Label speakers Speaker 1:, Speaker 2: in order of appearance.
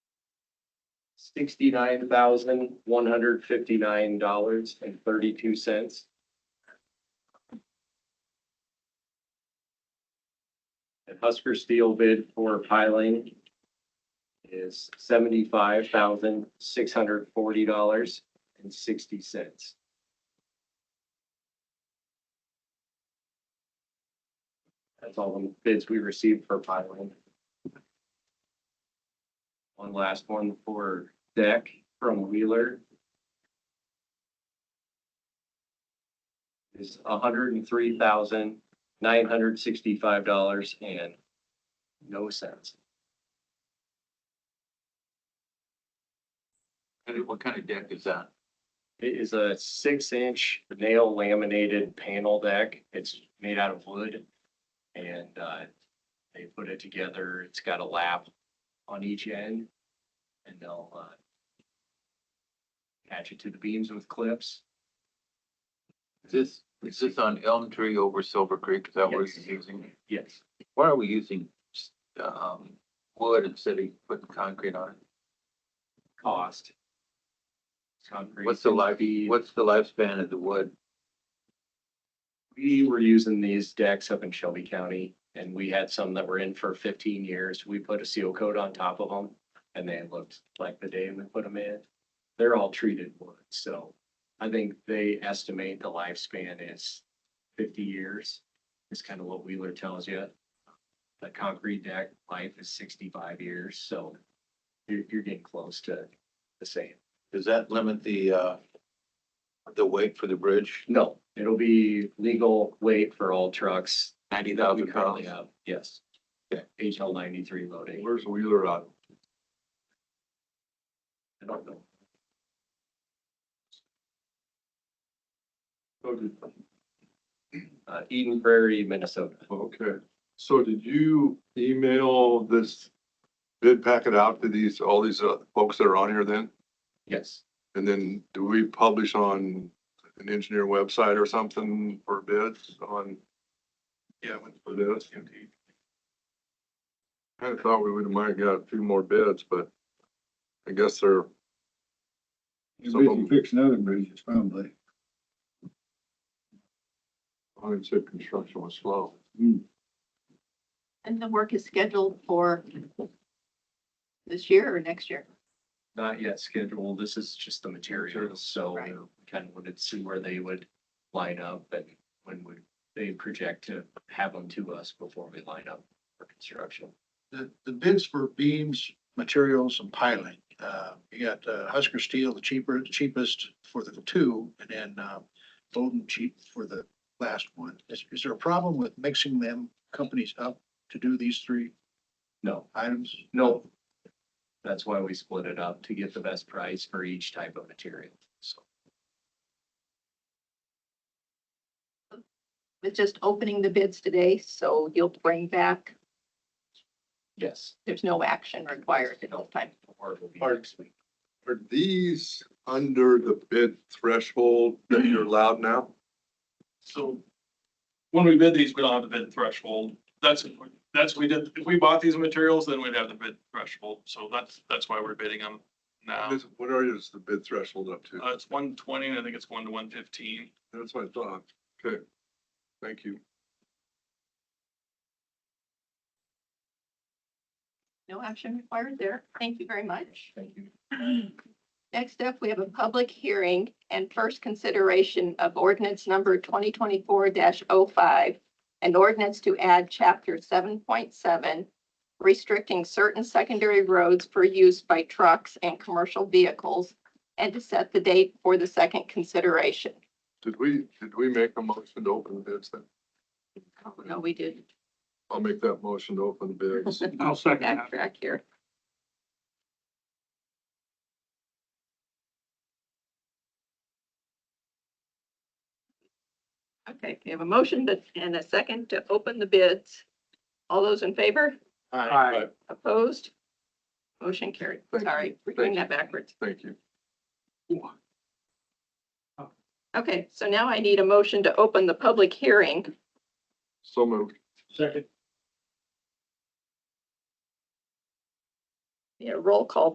Speaker 1: sixty-nine thousand, one hundred fifty-nine dollars and thirty-two cents. And Husker Steel bid for piling is seventy-five thousand, six hundred forty dollars and sixty cents. That's all the bids we received for piling. One last one for deck from Wheeler. Is hundred and three thousand, nine hundred sixty-five dollars and no cents.
Speaker 2: What kind of deck is that?
Speaker 1: It is a six-inch nail laminated panel deck. It's made out of wood. And uh, they put it together. It's got a lap on each end. And they'll uh, attach it to the beams with clips.
Speaker 2: Is this, is this on Elm Tree over Silver Creek? Is that what
Speaker 1: Yes.
Speaker 2: you're using?
Speaker 1: Yes.
Speaker 2: Why are we using, um, wood instead of putting concrete on it?
Speaker 1: Cost. Concrete
Speaker 2: What's the
Speaker 1: can
Speaker 2: life,
Speaker 1: be-
Speaker 2: what's the lifespan of the wood?
Speaker 1: We were using these decks up in Shelby County and we had some that were in for fifteen years. We put a seal coat on top of them and they looked like the day we put them in. They're all treated wood, so I think they estimate the lifespan is fifty years. Is kind of what Wheeler tells you. The concrete deck life is sixty-five years, so you're, you're getting close to the same.
Speaker 2: Does that limit the, uh, the weight for the bridge?
Speaker 1: No, it'll be legal weight for all trucks
Speaker 2: Ninety
Speaker 1: We
Speaker 2: thousand
Speaker 1: currently
Speaker 2: pounds.
Speaker 1: have, yes.
Speaker 2: Okay.
Speaker 1: HL ninety-three loading.
Speaker 2: Where's Wheeler on?
Speaker 1: I don't know.
Speaker 3: So did-
Speaker 1: Uh, Eden Prairie, Minnesota.
Speaker 3: Okay, so did you email this bid packet out to these, all these uh, folks that are on here then?
Speaker 1: Yes,
Speaker 3: And then do we publish on an engineer website or something for bids on? Yeah. For this? I thought we would have might got a few more bids, but I guess they're,
Speaker 4: You're busy fixing other bridges probably.
Speaker 3: I would say construction was slow.
Speaker 5: And the work is scheduled for this year or next year?
Speaker 1: not yet scheduled. This is just the materials, so
Speaker 5: Right.
Speaker 1: we kind of wanted to see where they would line up and when would they project to have them to us before we line up for construction.
Speaker 6: the, the bids for beams, materials and piling. Uh, you got uh, Husker Steel, the cheaper, cheapest for the two, and then, uh, Bowden cheap for the last one. Is, is there a problem with mixing them companies up to do these three
Speaker 1: No,
Speaker 6: items?
Speaker 1: no. That's why we split it up to get the best price for each type of material, so.
Speaker 5: It's just opening the bids today, so you'll bring back,
Speaker 1: Yes.
Speaker 5: there's no action required at this time.
Speaker 1: Or it will be
Speaker 3: Or-
Speaker 1: next week.
Speaker 3: Are these under the bid threshold that you're allowed now?
Speaker 7: So when we bid these, we don't have the bid threshold. That's, that's, we did, if we bought these materials, then we'd have the bid threshold. So that's, that's why we're bidding them now.
Speaker 3: This- What are, is the bid threshold up to?
Speaker 7: Uh, it's one twenty and I think it's going to one fifteen.
Speaker 3: That's what I thought. Okay. Thank you.
Speaker 5: No action required there. Thank you very much.
Speaker 1: Thank you.
Speaker 5: Next up, we have a public hearing and first consideration of ordinance number twenty twenty-four 5 An ordinance to add chapter seven point seven restricting certain secondary roads for use by trucks and commercial vehicles and to set the date for the second consideration.
Speaker 3: Did we, did we make a motion to open bids then?
Speaker 5: Oh, no, we did
Speaker 3: I'll make that motion to open bids.
Speaker 4: I'll second
Speaker 5: backtrack here. Okay, we have a motion to- and a second to open the bids. All those in favor?
Speaker 3: Aye.
Speaker 5: Opposed? Motion carried.
Speaker 3: Thank you.
Speaker 5: Sorry, we're doing that backwards.
Speaker 3: Thank you.
Speaker 5: Okay, so now I need a motion to open the public hearing.
Speaker 3: So moved.
Speaker 6: Second.
Speaker 5: Yeah, roll call